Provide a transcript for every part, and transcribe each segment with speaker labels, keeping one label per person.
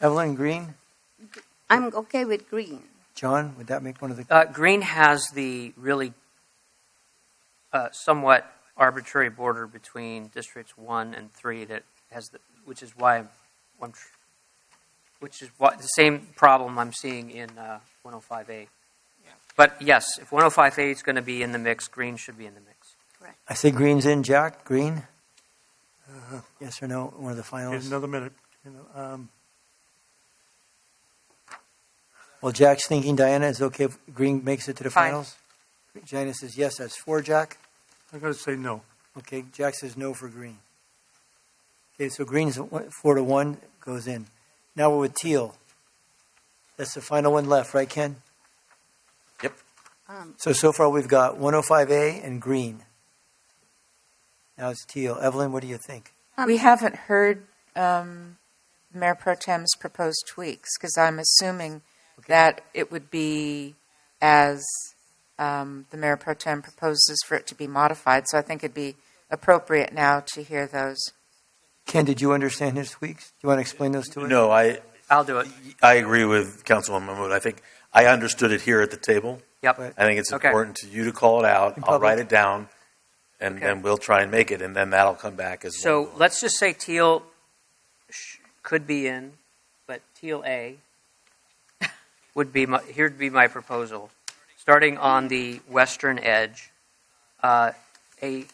Speaker 1: Evelyn, green?
Speaker 2: I'm okay with green.
Speaker 1: John, would that make one of the,
Speaker 3: Uh, green has the really uh, somewhat arbitrary border between districts one and three that has the, which is why I'm, I'm tr- which is why, the same problem I'm seeing in uh, 105A. But yes, if 105A is going to be in the mix, green should be in the mix.
Speaker 1: I say green's in, Jack, green? Uh, Yes or no, one of the
Speaker 4: Wait
Speaker 1: finals?
Speaker 4: another minute. You know, um,
Speaker 1: Well, Jack's thinking Diana is okay if green makes it to the
Speaker 3: Fine.
Speaker 1: finals? Diana says yes, that's four, Jack.
Speaker 4: I'm going to say no.
Speaker 1: Okay, Jack says no for green. Okay, so green's one- four to one, goes in. Now we're with teal. That's the final one left, right, Ken?
Speaker 5: Yep.
Speaker 2: Um,
Speaker 1: So, so far we've got 105A and green. Now it's teal. Evelyn, what do you think?
Speaker 6: We haven't heard um, Mayor Pro Tem's proposed tweaks because I'm assuming that it would be as um, the Mayor Pro Tem proposes for it to be modified. So I think it'd be appropriate now to hear those.
Speaker 1: Ken, did you understand his tweaks? Do you want to explain those to us?
Speaker 5: No, I,
Speaker 3: I'll do it.
Speaker 5: I agree with Councilwoman Mahmood. I think I understood it here at the table.
Speaker 3: Yep.
Speaker 1: Right.
Speaker 5: I think it's
Speaker 3: Okay.
Speaker 5: important to you to call it out.
Speaker 1: In
Speaker 5: I'll
Speaker 1: public.
Speaker 5: write it down, and
Speaker 3: Okay.
Speaker 5: then we'll try and make it, and then that'll come back as
Speaker 3: So
Speaker 5: one.
Speaker 3: let's just say teal sh- could be in, but teal A would be my, here'd be my proposal. Starting on the western edge, uh, a,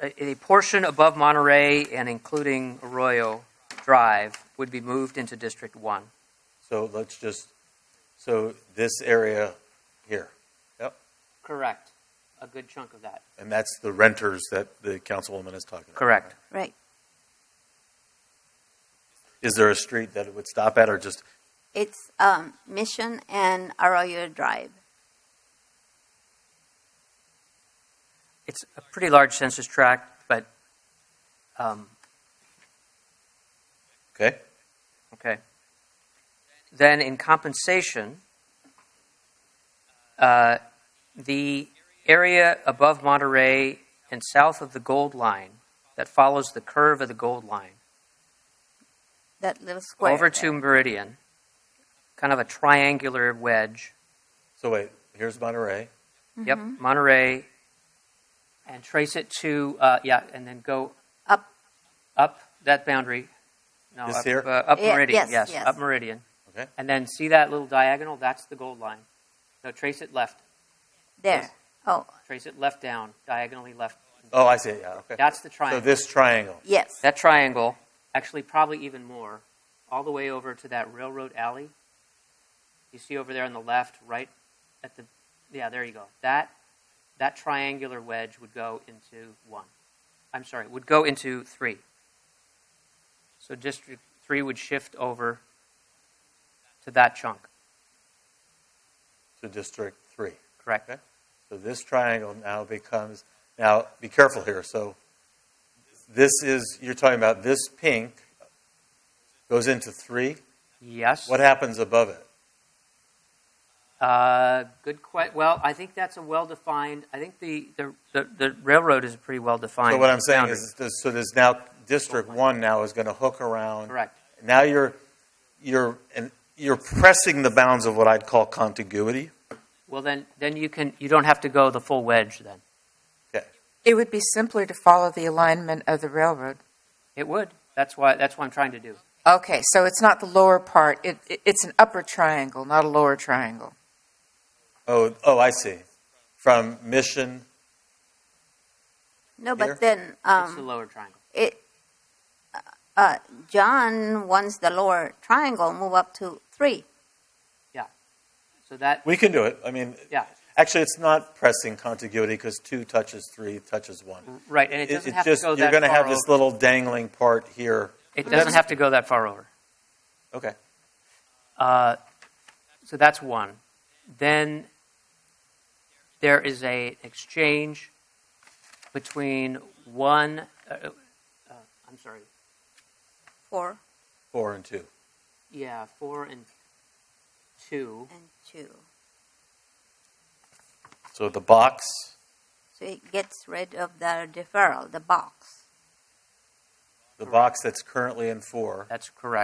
Speaker 3: a, a portion above Monterey and including Arroyo Drive would be moved into District 1.
Speaker 5: So let's just, so this area here,
Speaker 3: Correct. A good chunk of that.
Speaker 5: and that's the renters that the councilwoman is talking about.
Speaker 3: Correct.
Speaker 2: Right.
Speaker 5: Is there a street that it would stop at, or just,
Speaker 2: It's um, Mission and Arroyo Drive.
Speaker 3: It's a pretty large census tract, but um,
Speaker 5: okay?
Speaker 3: Okay. Then in compensation, uh, the area above Monterey and south of the gold line that follows the curve of the gold line
Speaker 2: That little square.
Speaker 3: over to Meridian, kind of a triangular wedge.
Speaker 5: So wait, here's Monterey.
Speaker 3: Yep, Monterey, and trace it to uh, yeah, and then go
Speaker 2: Up.
Speaker 3: up that boundary. No,
Speaker 5: This
Speaker 3: up,
Speaker 5: here?
Speaker 3: Uh, up
Speaker 2: Yeah,
Speaker 3: meridian.
Speaker 2: yes,
Speaker 3: yes,
Speaker 2: yes.
Speaker 3: up meridian.
Speaker 5: Okay.
Speaker 3: And then see that little diagonal? That's the gold line. No, trace it left.
Speaker 2: there. Oh,
Speaker 3: Trace it left down, diagonally left.
Speaker 5: Oh, I see, yeah, okay.
Speaker 3: That's the
Speaker 5: So
Speaker 3: triangle.
Speaker 5: this triangle,
Speaker 2: yes.
Speaker 3: that triangle, actually probably even more, all the way over to that railroad alley. You see over there on the left, right at the yeah, there you go. That that triangular wedge would go into one. I'm sorry, would go into three. So district three would shift over to that chunk,
Speaker 5: to District Three.
Speaker 3: correct?
Speaker 5: Okay. So this triangle now becomes, now, be careful here, so this is, you're talking about this pink goes into three,
Speaker 3: Yes.
Speaker 5: what happens above it?
Speaker 3: Uh, good question. Well, I think that's a well-defined. I think the the, the, the railroad is a pretty well-defined.
Speaker 5: So what I'm saying
Speaker 3: boundary.
Speaker 5: is, this- so there's now, District One now is gonna hook around.
Speaker 3: correct.
Speaker 5: Now you're, you're, and you're pressing the bounds of what I'd call contiguity.
Speaker 3: Well, then then you can you don't have to go the full wedge. Then
Speaker 6: It would be simpler to follow the alignment of the railroad.
Speaker 3: it would. That's why that's what I'm trying to do.
Speaker 6: Okay, so it's not the lower part. It, it, it's an upper triangle, not a lower triangle.
Speaker 5: Oh, oh, I see. From Mission,
Speaker 2: No,
Speaker 5: Here?
Speaker 2: but then
Speaker 3: it's the
Speaker 2: um,
Speaker 3: lower triangle.
Speaker 2: it. Uh, John wants the lower triangle move up to three.
Speaker 3: So that
Speaker 5: we can do it, I mean,
Speaker 3: yeah
Speaker 5: actually, it's not pressing contiguity, because two touches three, touches one.
Speaker 3: right, and it doesn't
Speaker 5: it's
Speaker 3: have
Speaker 5: just
Speaker 3: to go that
Speaker 5: you're going to
Speaker 3: far
Speaker 5: have this
Speaker 3: over.
Speaker 5: little dangling part here.
Speaker 3: It doesn't have to go that far over.
Speaker 5: Okay.
Speaker 3: Uh, so that's one. Then there is a exchange between one. Uh, uh, uh, I'm sorry.
Speaker 2: Four
Speaker 5: Four and two.
Speaker 3: Yeah, four and two.
Speaker 2: and two.
Speaker 5: So the box.
Speaker 2: So it gets rid of the deferral, the box.
Speaker 5: The box that's currently in four.
Speaker 3: That's correct.